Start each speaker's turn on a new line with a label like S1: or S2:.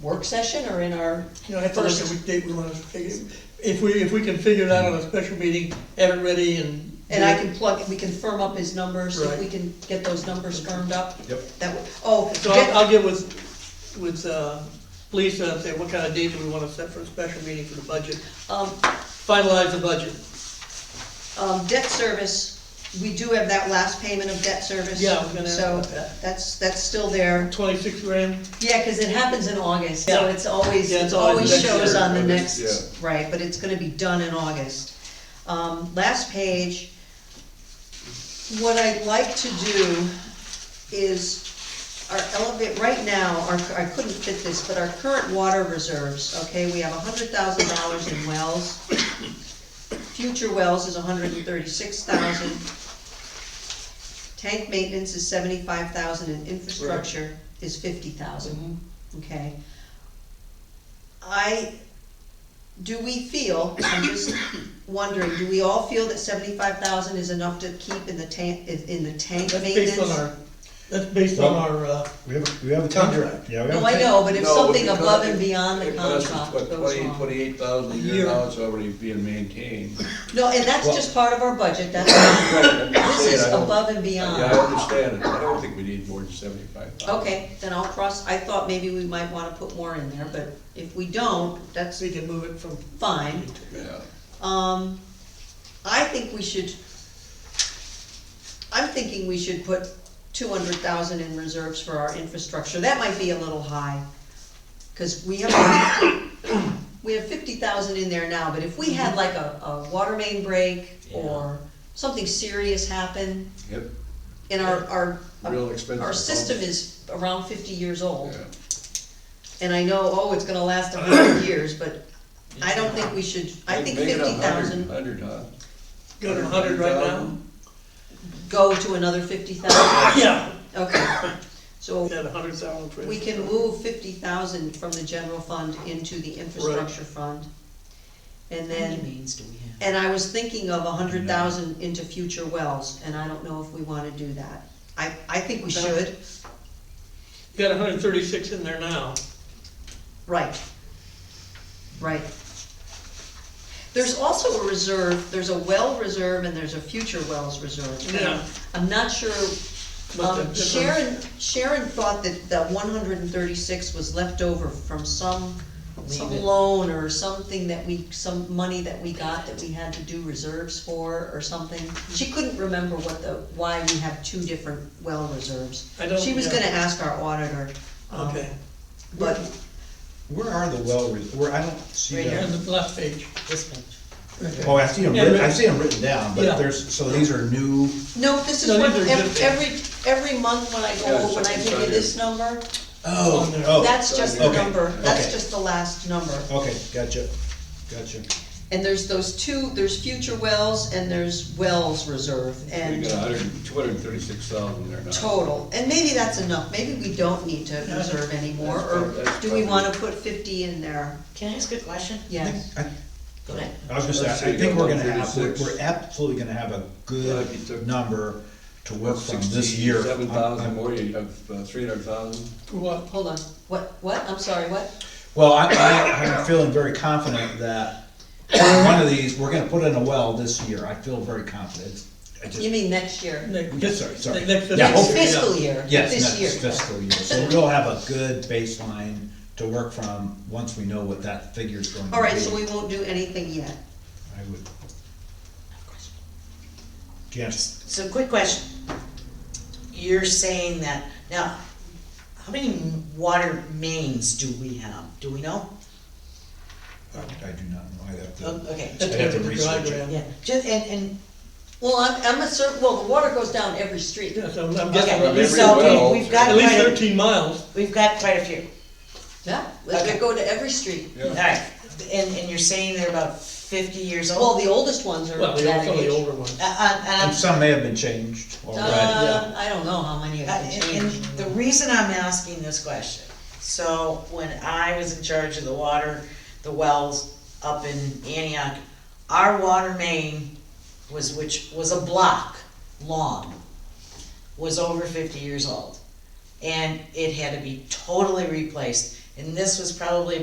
S1: work session or in our,
S2: You know, I have to look at
S1: First.
S2: what date we wanna, figure- if we, if we can figure it out on a special meeting, have it ready and.
S1: and I can plug, we can firm up his numbers, if we
S2: Right.
S1: can get those numbers firmed up.
S3: Yep.
S1: That, would- oh,
S2: So um,
S1: Jen-
S2: I'll, I'll get with, with, uh, Lisa and say, what kind of date do we wanna set for a special meeting for the budget?
S1: um,
S2: Finalize the budget.
S1: Um, debt service, we do have that last payment of debt service.
S2: Yeah, I was gonna ask
S1: so
S2: about that.
S1: That's, that's still there.
S2: Twenty-six grand,
S1: Yeah, cause it happens in August, so
S2: Yeah.
S1: it's always,
S2: Yeah, it's
S1: it
S2: always
S1: always
S2: next
S1: shows
S2: year,
S1: on the
S3: but
S1: next,
S3: it's-
S1: right, but it's gonna be done in August. Um, last page, what I'd like to do is our elevate, right now, our, I couldn't fit this, but our current water reserves, okay, we have hundred thousand dollars in wells. Future wells is hundred and thirty-six thousand. Tank maintenance is seventy-five thousand and infrastructure is fifty thousand, okay? I, do we feel, I'm just wondering, do we all feel that seventy-five thousand is enough to keep in the tank, in in the tank
S2: that's
S1: maintenance?
S2: based on our, that's based on our, uh,
S3: We have, we have a contract, yeah. we have a
S1: No, I know, but if
S4: No,
S1: something
S4: because
S1: above and
S4: it-
S1: beyond the
S4: it costs us,
S1: contract
S4: what,
S1: goes
S4: Twenty,
S1: wrong.
S4: twenty-eight thousand a
S2: Year.
S4: year now, it's already being maintained.
S1: No, and that's
S4: Well-
S1: just part of our budget, that's, this is above and
S4: Yeah, I
S1: beyond.
S4: understand it, I don't think we need more than seventy-five thousand.
S1: Okay, then I'll cross, I thought maybe we might wanna put more in there, but if we don't, that's
S2: we can move it from.
S1: fine.
S4: Yeah,
S1: Um, I think we should, I'm thinking we should put two hundred thousand in reserves for our infrastructure, that might be a little high. Cause we have, we have fifty thousand in there now, but if we had like a, a water main break or something serious happen,
S4: yep,
S1: and our, our,
S4: real expensive.
S1: our system is around fifty years old,
S4: Yeah.
S1: and I know, oh, it's gonna last a hundred years, but I don't think we should, I think
S4: Make it a
S1: fifty thousand.
S4: Hundred, huh?
S2: Go to hundred right now?
S4: 100,000.
S1: go to another fifty thousand?
S2: Yeah,
S1: Okay, so
S2: we had a hundred thousand for.
S1: we can move fifty thousand from the general fund into the infrastructure fund. And
S5: How many
S1: then,
S5: mains do we have?
S1: and I was thinking of a hundred thousand into future wells, and I don't know if we wanna do that. I, I think we should,
S2: Got hundred thirty-six in there now.
S1: right, right. There's also a reserve, there's a well reserve and there's a future wells reserve.
S2: Yeah.
S1: I'm not sure
S2: but the
S1: Um,
S2: difference-
S1: Sharon, Sharon thought that that one hundred and thirty-six was left over from some, some
S5: Leave it.
S1: loan or something that we, some money that we got that we had to do reserves for or something. She couldn't remember what the, why we have two different well reserves.
S2: I don't-
S1: She was
S2: yeah.
S1: gonna ask our auditor, um,
S2: Okay,
S1: but
S3: Where are the well, re- where, I don't see
S1: Right
S2: on
S3: them.
S2: the last page.
S5: This page.
S3: Oh, I see them,
S2: Yeah,
S3: writ-
S2: but-
S3: I see them written down,
S2: Yeah.
S3: but there's, so these are new,
S1: No, this
S2: No,
S1: is what,
S2: these are
S1: ev-
S2: different.
S1: every, every month when I
S4: Yeah,
S1: go over, when I
S4: second
S1: give you
S4: Friday.
S1: this number,
S3: oh,
S2: On there.
S3: oh,
S1: that's just the
S3: okay,
S1: number, that's
S3: okay.
S1: just the last number.
S3: okay, gotcha, gotcha.
S1: And there's those two, there's future wells and there's wells reserve
S4: We
S1: and
S4: got a hundred, two hundred and thirty-six thousand there now.
S1: total. And maybe that's enough, maybe we don't need to reserve anymore, or do we wanna put fifty in there?
S5: Can I ask a question?
S3: I
S1: Yes.
S3: think- I
S5: Go ahead.
S3: I was gonna
S4: Let's
S3: say,
S4: see,
S3: I think we're gonna have, we're
S4: 136.
S3: we're absolutely gonna have a
S4: Yeah, you
S3: good
S4: took-
S3: number to work from this year.
S4: Seven
S3: I'm-
S4: thousand
S3: I'm-
S4: more, you have uh, three hundred thousand.
S2: For what?
S1: Hold on, what, what, I'm sorry, what?
S3: Well, I, I, I'm feeling very confident that one of these, we're gonna put in a well this year, I feel very confident. I just-
S1: You mean next year?
S2: Next-
S3: Yes, sorry, sorry.
S2: Next
S3: Yeah,
S1: Next
S3: hopefully,
S1: fiscal year,
S3: Yes,
S1: this year.
S3: next fiscal year, so we'll have a good baseline to work from, once we know what that figure's going to be.
S1: All right, so we won't do anything yet.
S3: I would. Yes,
S5: So quick question. You're saying that, now, how many water mains do we have? Do we know?
S3: I I do not know, I'd have
S5: Oh,
S3: to,
S5: Okay,
S2: That's
S3: I'd have to
S2: the
S3: research it.
S2: diagram.
S5: yeah, just, and, and,
S1: Well, I'm, I'm a cer, well, the water goes down every street.
S2: Yeah, so I'm guessing,
S4: from
S5: okay,
S4: every
S5: so
S4: well,
S5: we- we've got
S2: at least
S5: quite, a-
S2: thirteen miles.
S5: we've got quite a few.
S1: Yeah, they go to every street.
S5: Alright, and, and you're saying they're about fifty years
S1: Well,
S5: old?
S1: the oldest ones are
S2: Well,
S1: that
S2: the old- some of the
S1: age.
S2: older ones.
S5: Uh, uh, and I'm
S3: and some may have been changed already.
S1: Uh, I don't know how many of
S5: Uh,
S1: them
S5: And and
S1: changed.
S5: the reason I'm asking this question, so when I was in charge of the water, the wells up in Antioch, our water main was, which was a block long, was over fifty years old. And it had to be totally replaced, And this was probably